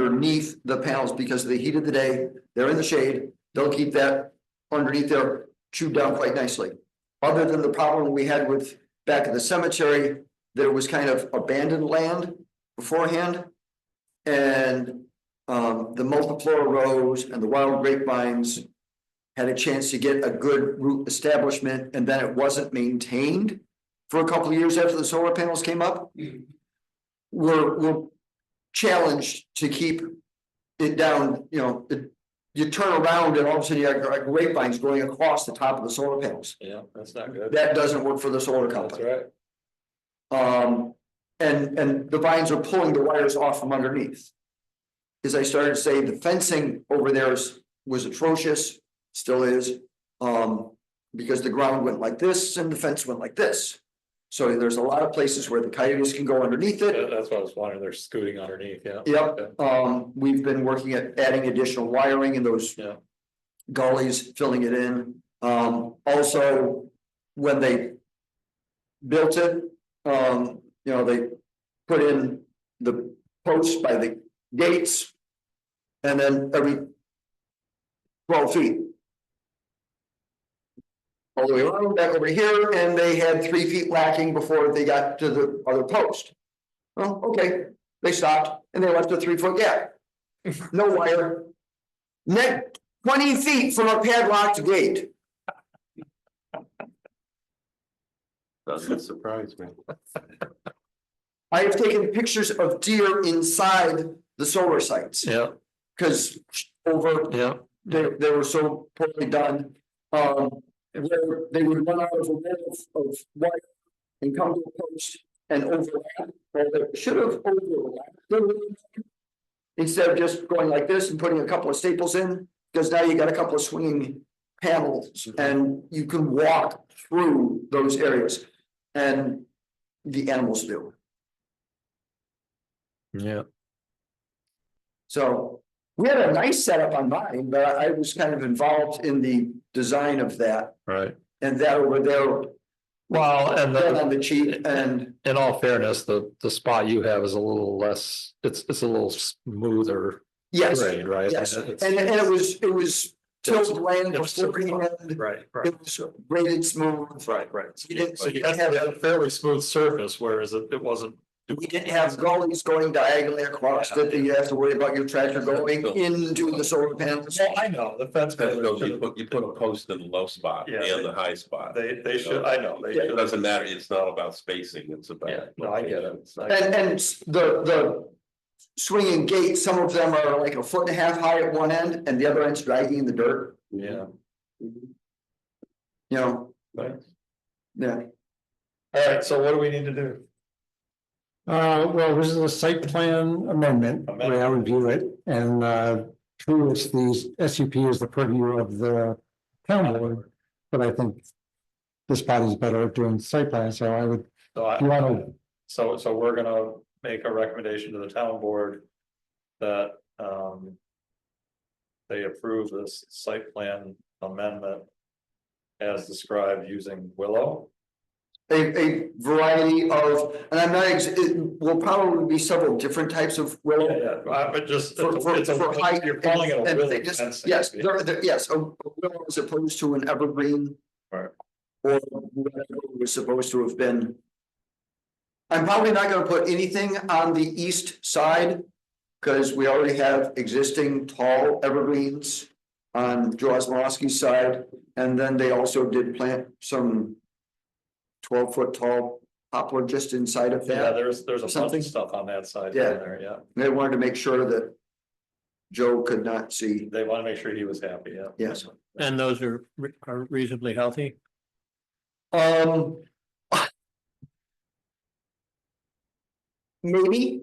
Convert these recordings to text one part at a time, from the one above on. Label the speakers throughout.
Speaker 1: underneath the panels because of the heat of the day, they're in the shade, they'll keep that underneath there chewed down quite nicely. Other than the problem we had with back at the cemetery, there was kind of abandoned land beforehand. And um, the multiflora rose and the wild grapevines had a chance to get a good root establishment and then it wasn't maintained for a couple of years after the solar panels came up. We're, we're challenged to keep it down, you know, it- you turn around and all of a sudden you got grapevines going across the top of the solar panels.
Speaker 2: Yeah, that's not good.
Speaker 1: That doesn't work for the solar
Speaker 2: That's
Speaker 1: company.
Speaker 2: right.
Speaker 1: Um, and, and the vines are pulling the wires off from underneath. As I started to say, the fencing over there is, was atrocious, still is. Um, because the ground went like this and the fence went like this. So there's a lot of places where the coyotes can go underneath it.
Speaker 2: That- That's what I was wondering. They're scooting underneath, yeah.
Speaker 1: Yep, um, we've been working at adding additional wiring in those.
Speaker 2: Yeah.
Speaker 1: Gullies, filling it in, um, also, when they. Built it, um, you know, they put in the posts by the gates. And then every. Twelve feet. All the way around back over here, and they had three feet lacking before they got to the other post. Well, okay, they stopped and they left a three foot gap. No wire. Net twenty feet from a padlocked gate.
Speaker 2: Doesn't surprise me.
Speaker 1: I have taken pictures of deer inside the solar sites
Speaker 2: Yeah,
Speaker 1: because over,
Speaker 2: yeah.
Speaker 1: they, they were so poorly done. Um, where they would run out of a wall of wire and come to a post and overlap, or they should have overlapped. Instead of just going like this and putting a couple of staples in, because now you got a couple of swinging panels and you can walk through those areas. And the animals do,
Speaker 2: Yeah.
Speaker 1: so we had a nice setup on mine, but I I was kind of involved in the design of that.
Speaker 2: Right.
Speaker 1: And that over there,
Speaker 2: Well, and
Speaker 1: that
Speaker 2: the,
Speaker 1: on the cheap and,
Speaker 2: in all fairness, the, the spot you have is a little less, it's, it's a little smoother
Speaker 1: yes,
Speaker 2: grade, right?
Speaker 1: yes,
Speaker 2: It's-
Speaker 1: and and it was, it was tilled land
Speaker 2: it was so
Speaker 1: beforehand.
Speaker 2: Right, right,
Speaker 1: It was graded smooth,
Speaker 2: right, right.
Speaker 1: You didn't-
Speaker 2: So you had you had a fairly smooth surface, whereas it, it wasn't.
Speaker 1: we didn't have gullies going diagonally across that you have to worry about your tractor going into the solar panels.
Speaker 2: Well, I know, the fence.
Speaker 3: That's
Speaker 2: panels
Speaker 3: because you
Speaker 2: should've-
Speaker 3: put, you put a post in the low spot
Speaker 2: Yeah.
Speaker 3: and the high spot.
Speaker 2: They, they should, I know, they
Speaker 3: It
Speaker 2: should.
Speaker 3: doesn't matter, it's not about spacing, it's
Speaker 2: Yeah,
Speaker 3: about.
Speaker 2: no, I get it. I-
Speaker 1: And, and s- the, the swinging gates, some of them are like a foot and a half high at one end and the other end's dragging in the dirt,
Speaker 2: Yeah.
Speaker 1: you know, yeah.
Speaker 2: All right, so what do we need to do?
Speaker 4: Uh, well, this is a site plan amendment,
Speaker 2: Amendment.
Speaker 4: way I review it, and, uh, true, it's the S U P is the purview of the town board, but I think this body's better at doing site plans, so I would,
Speaker 2: So
Speaker 4: if you
Speaker 2: I,
Speaker 4: wanna,
Speaker 2: so, so we're gonna make a recommendation to the town board that, um. They approve this site plan amendment as described using Willow.
Speaker 1: a, a variety of, and I'm not, ex- it will probably be several different types of willow.
Speaker 2: Yeah, uh, but just.
Speaker 1: For, for,
Speaker 2: it's a-
Speaker 1: for height.
Speaker 2: You're calling it a
Speaker 1: and- and
Speaker 2: Willow
Speaker 1: thickness.
Speaker 2: fencing.
Speaker 1: Yes, there, there, yes, a a willow as opposed to an evergreen.
Speaker 2: Right.
Speaker 1: Or whatever it was supposed to have been. I'm probably not gonna put anything on the east side, cause we already have existing tall evergreens. On Joe Osmowski's side, and then they also did plant some. Twelve foot tall poplar just inside of
Speaker 2: Yeah,
Speaker 1: that,
Speaker 2: there's, there's a bunch
Speaker 1: Something.
Speaker 2: of stuff on that side
Speaker 1: Yeah.
Speaker 2: down there, yeah.
Speaker 1: they wanted to make sure that. Joe could not see,
Speaker 2: They wanna make sure he was happy, yeah.
Speaker 1: yes.
Speaker 5: And those are re- are reasonably healthy?
Speaker 1: Um. Maybe.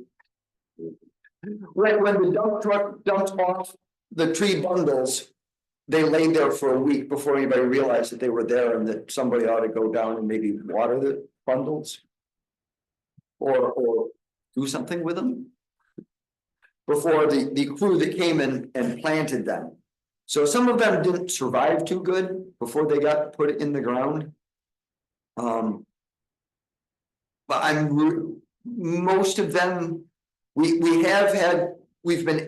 Speaker 1: Like when the dump truck dumped off the tree bundles. They lay there for a week before anybody realized that they were there and that somebody ought to go down and maybe water the bundles. Or, or do something with them. Before the, the crew that came in and planted them. So some of them didn't survive too good before they got put in the ground. Um. But I'm, re- most of them, we, we have had we've been